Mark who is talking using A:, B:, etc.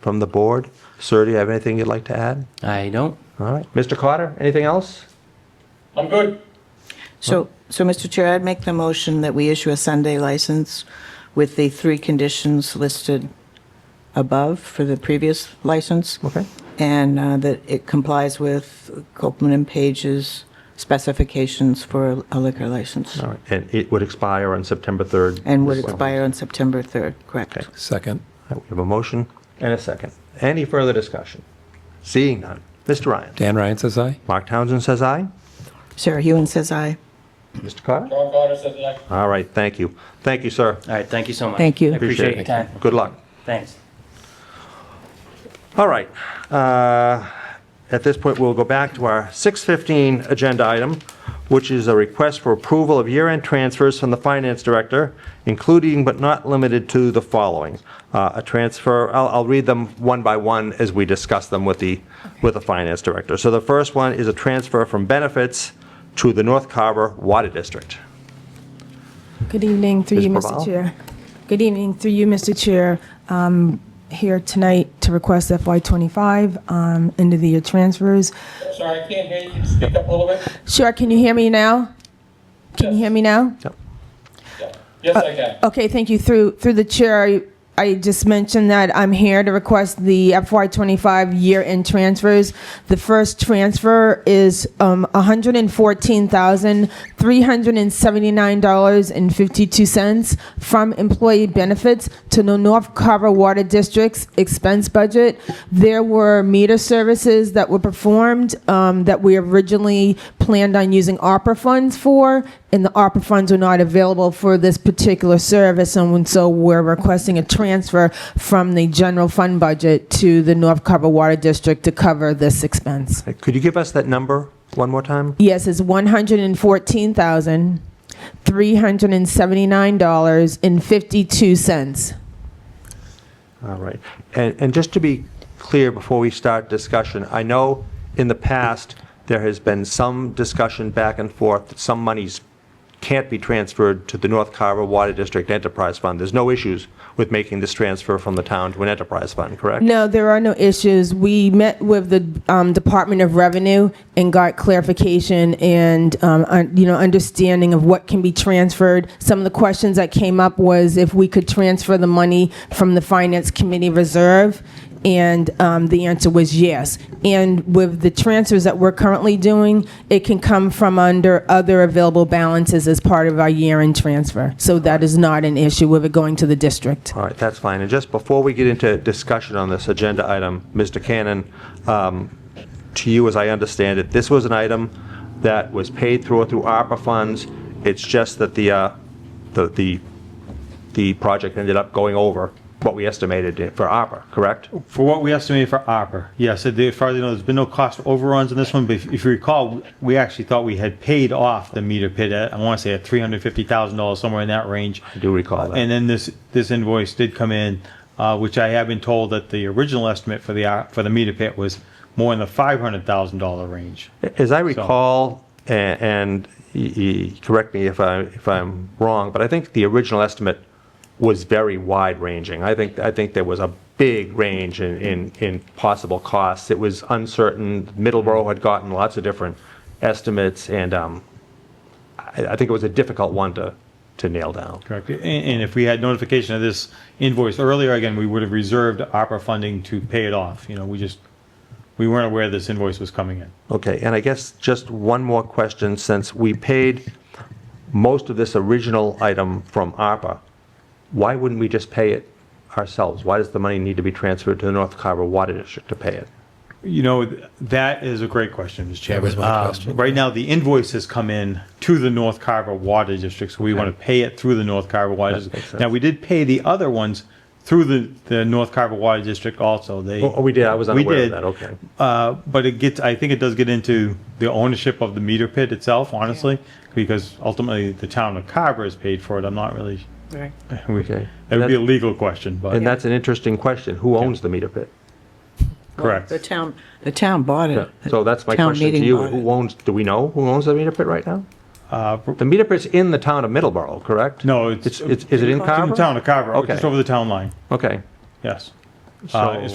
A: from the board. Sir, do you have anything you'd like to add?
B: I don't.
A: All right. Mr. Carter, anything else?
C: I'm good.
D: So, so Mr. Chair, I'd make the motion that we issue a Sunday license with the three conditions listed above for the previous license.
A: Okay.
D: And uh, that it complies with Copeland and Page's specifications for a liquor license.
A: All right. And it would expire on September 3rd.
D: And would expire on September 3rd,
A: Okay.
D: correct?
E: Second.
A: All right, We have a motion and a second. Any further discussion? Seeing none. Mr. Ryan?
E: Dan Ryan says aye.
A: Mark Townsend says aye.
D: Sarah Hewen says aye.
A: Mr. Carter?
C: John Carter says aye.
A: All right. Thank you. Thank you, sir.
B: All right, thank you so much.
D: Thank you.
B: I appreciate your time.
A: Good luck.
B: Thanks.
A: All right. Uh, At this point, we'll go back to our 6:15 agenda item, which is a request for approval of year-end transfers from the Finance Director, including but not limited to the following. Uh, A transfer, I'll I'll read them one by one as we discuss them with the, with the Finance Director. So the first one is a transfer from benefits to the North Carver Water District.
F: Good evening, through
A: Ms.
F: you,
A: Bravo.
F: Mr. Chair. Good evening, through you, Mr. Chair. Um, Here tonight to request FY25 um, end of the year transfers.
C: Sorry, I can't hear you. Speak up a little bit.
F: Sure, can you hear me now? Can you hear me now?
C: Yeah. Yes, I can.
F: Okay, thank you. Through, through the chair, I- I just mentioned that I'm here to request the FY25 year-end transfers. The first transfer is um, $114,379.52 from employee benefits to the North Carver Water District's expense budget. There were meter services that were performed um, that we originally planned on using ARPA funds for, and the ARPA funds were not available for this particular service, and so we're requesting a transfer from the general fund budget to the North Carver Water District to cover this expense.
A: Uh, Could you give us that number one more time?
F: Yes, it's one hundred and fourteen thousand three hundred and seventy-nine dollars and fifty-two cents.
A: All right. And, and just to be clear, before we start discussion, I know in the past, there has been some discussion back and forth, that some monies can't be transferred to the North Carver Water District Enterprise Fund. There's no issues with making this transfer from the town to an enterprise fund, correct?
F: No, there are no issues. We met with the um, Department of Revenue and got clarification and um, un- you know understanding of what can be transferred. Some of the questions that came up was if we could transfer the money from the Finance Committee reserve, and um, the answer was yes. And with the transfers that we're currently doing, it can come from under other available balances as part of our year-end transfer. So that is not an issue with it going to the district.
A: All right, that's fine. And just before we get into discussion on this agenda item, Mr. Cannon, um, to you, as I understand it, this was an item that was paid through through ARPA funds. It's just that the, uh, the, the, the project ended up going over what we estimated it for ARPA, correct?
G: For what we estimated for ARPA, yes, it- as far as I know, there's been no cost overruns on this one, but if if you recall, we actually thought we had paid off the meter pit at, I want to say at $350,000, somewhere in that range.
A: I do recall
G: And
A: that.
G: then this, this invoice did come in, uh, which I have been told that the original estimate for the, ar- for the meter pit was more in the $500,000 range.
A: As I recall, a- and y- y- correct me if I, if I'm wrong, but I think the original estimate was very wide-ranging. I think, I think there was a big range in, in, in possible costs. It was uncertain. Middleborough had gotten lots of different estimates, and um, I, I think it was a difficult one to, to nail down.
G: Correct. And, and if we had notification of this invoice earlier, again, we would have reserved ARPA funding to pay it off. You know, we just, we weren't aware this invoice was coming in.
A: Okay, and I guess just one more question, since we paid most of this original item from ARPA, why wouldn't we just pay it ourselves? Why does the money need to be transferred to the North Carver Water District to pay it?
G: You know, th- that is a great question, Mr. Chairman.
E: That was my
G: Um,
E: question.
G: Right now, the invoice has come in to the North Carver Water District, so we want to pay it through the North Carver Water
A: makes
G: District.
A: sense.
G: Now, we did pay the other ones through the, the North Carver Water District also. They.
A: Oh, we did, I was
G: We
A: unaware of
G: did.
A: that, okay.
G: Uh, but it gets, I think it does get into the ownership of the meter pit itself, honestly, because ultimately the town of Carver has paid for it. I'm not really,
D: Right.
G: we-
A: Okay.
G: that would be a
A: That-
G: legal question, but,
A: And that's an interesting question, who owns the meter pit?
G: correct.
D: The town, the town bought it.
A: So that's my
D: Town
A: question to
D: meeting
A: you,
D: bought it.
A: who owns, do we know who owns the meter pit right now?
G: Uh,
A: The meter pit's in the town of Middleborough, correct?
G: No,
A: It's,
G: it's.
A: it's- is it in
G: It's in
A: Carver?
G: oh, the town of Carver,
A: Okay.
G: just over the town line,
A: Okay.
G: yes.
A: So-
G: as